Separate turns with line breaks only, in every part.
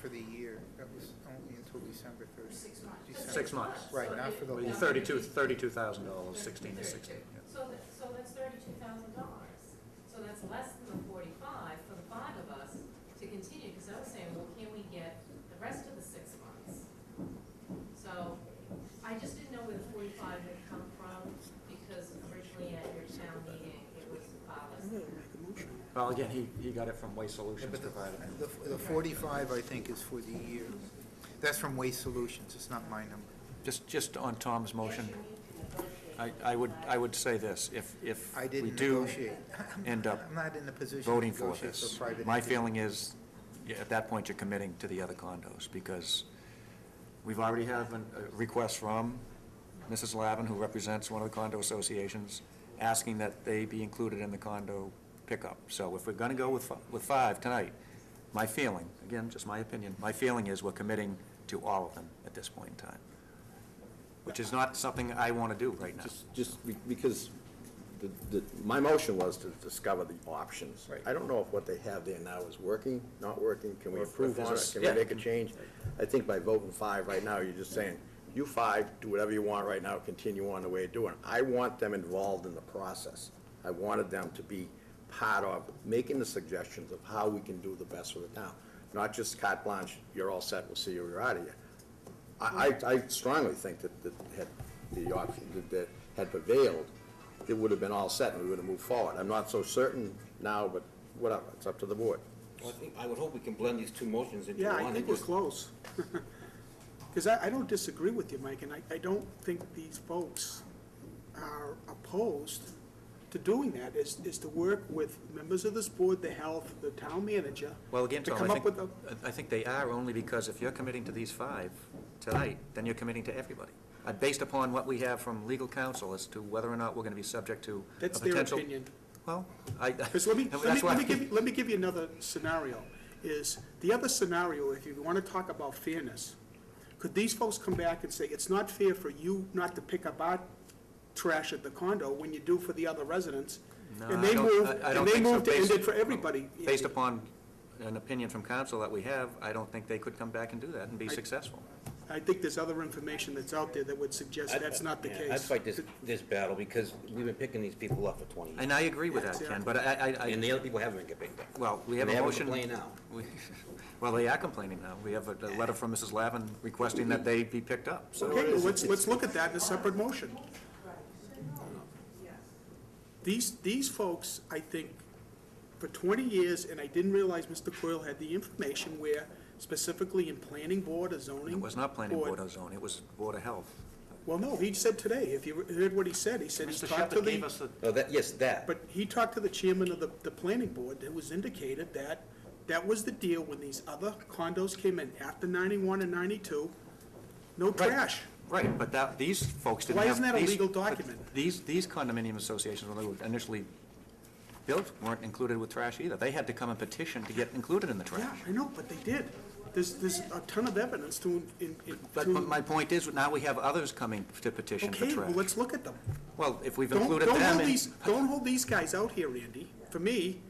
for the year, that was only until December thirty.
Six months.
December.
Six months.
Right, not for the whole.
Well,
year.
Thirty-two, thirty-two thousand dollars, sixteen to sixteen. yeah.
So that, so that's thirty-two thousand dollars. So that's less than the forty-five for the five of us to continue, because I was saying, well, can we get the rest of the six months? So I just didn't know where the forty-five would come from, because originally at your town meeting, it was uh, five of us.
Well, again, he, he got it from Waste
Yeah,
Solutions
but the-
provided.
The, the forty-five, I think, is for the year. That's from Waste Solutions, it's not my number.
Just, just on Tom's motion, I, I would, I would say this, if, if
I
we
didn't
do
negotiate.
end up
I'm not in a position to
voting for
negotiate
this,
for private.
my
entity.
feeling is, yeah, at that point, you're committing to the other condos, because we've already have an- a request from Mrs. Lavin, who represents one of the condo associations, asking that they be included in the condo pickup. So if we're gonna go with, fi- with five tonight, my feeling, again, just my opinion, my feeling is we're committing to all of them at this point in time, which is not something I wanna do right now.
Just, just be- because the, the, my motion was to discover the options.
Right.
I don't know if what they have there now is working, not working, can we
Or if
improve on
there's
it,
a-
can we
yeah.
make a change? I think by voting five right now, you're just saying, you five, do whatever you want right now, continue on the way you're doing. I want them involved in the process. I wanted them to be part of making the suggestions of how we can do the best for the town. Not just carte blanche, you're all set, we'll see you, you're out of here. I, I I strongly think that, that had the option, that- that had prevailed, it would have been all set and we would have moved forward. I'm not so certain now, but whatever, it's up to the board.
Well, I think, I would hope we can blend these two motions into
Yeah,
one.
I
and
think we're
just-
close. Because I, I don't disagree with you, Mike, and I, I don't think these folks are opposed to doing that, is, is to work with members of this board, the health, the town manager.
Well, again,
to
Tom,
come
I
up with
think,
a
I I think they are only because if you're committing to these five tonight, then you're committing to everybody. Uh, Based upon what we have from legal counsel as to whether or not we're gonna be subject to a
That's their
potential-
opinion.
Well, I.
Because let me, let me,
that's why-
let me give, you- let me give you another scenario, is, the other scenario, if you want to talk about fairness, could these folks come back and say, it's not fair for you not to pick up our trash at the condo when you do for the other residents?
No,
And
I
they
don't-
move,
I- I
and
don't
they
think so.
move to end
Based-
it for everybody.
Based upon an opinion from counsel that we have, I don't think they could come back and do that and be
I-
successful.
I think there's other information that's out there that would suggest
I'd-
that's not the
yeah,
case.
I'd fight this, this battle, because we've been picking these people up for twenty years,
And I agree with
Yeah,
that, Ken,
exactly.
but I, I,
and
I,
the other people haven't been getting picked up.
well, we have
And
a
they haven't
motion.
complained now.
we- Well, they are complaining now. We have a a letter from Mrs. Lavin requesting that they be picked up, so.
Okay, well, let's, let's look at that in a separate motion. These, these folks, I think, for twenty years, and I didn't realize Mr. Coyle had the information where specifically in planning board or zoning.
It was not planning board or zone, it was Board of Health.
Well, no, he said today, if you heard what he said, he said he
Mr.
talked to
Shepherd
the.
gave us the,
Oh, that, yes, that.
But he talked to the chairman of the, the planning board, that was indicated that that was the deal when these other condos came in after ninety-one and ninety-two, no trash.
right, but that, these folks didn't
Why
have.
isn't that a
these-
legal
but
document?
These, these condominium associations, when they were initially built, weren't included with trash either. They had to come and petition to get included in the
Yeah,
trash.
I know, but they did. There's, there's a ton of evidence to, in, in.
But
to-
but my point is, now we have others coming to petition for
Okay, well,
trash.
let's look at them.
Well, if we've
Don't,
included
don't
them
hold
in.
these, don't hold these guys out here, Andy, for me,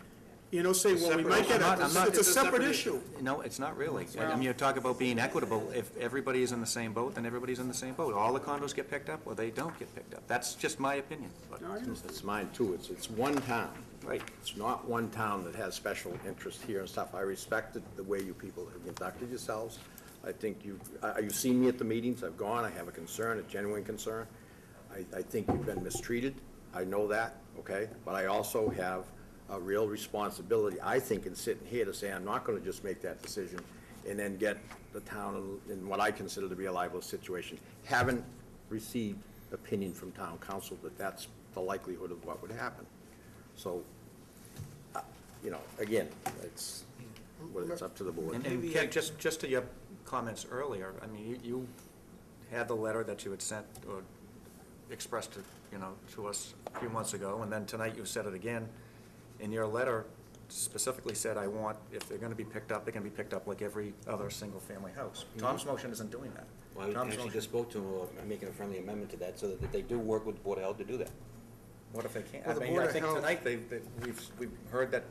you know, saying, well, we might get
I'm not- I'm
a,
not-
it's a separate issue.
No, it's not really. I mean, you talk about being equitable. If everybody is in the same boat, then everybody's in the same boat. All the condos get picked up, or they don't get picked up. That's just my opinion. but-
No, I understand.
It's mine too, it's, it's one town.
Right.
It's not one town that has special interest here and stuff. I respected the way you people have conducted yourselves. I think you, I- you've seen me at the meetings, I've gone, I have a concern, a genuine concern. I, I think you've been mistreated, I know that, okay? But I also have a real responsibility, I think, in sitting here to say, I'm not gonna just make that decision and then get the town in- in what I consider to be a liable situation. Haven't received opinion from town council that that's the likelihood of what would happen. So uh, you know, again, it's, well, it's up to the board.
And- And Ken, just, just to your comments earlier, I mean, you, you had the letter that you had sent or expressed to, you know, to us a few months ago, and then tonight you said it again. And your letter specifically said, I want, if they're gonna be picked up, they're gonna be picked up like every other single-family house. Tom's motion isn't doing that.
Well, I
Tom's
actually
motion-
just spoke to him, about making a friendly amendment to that, so that they do work with the Board of Health to do that.
What if they can't?
Well,
I
the
mean,
Board
I
of
think
Health-
tonight, they've, they've- we've, we've heard that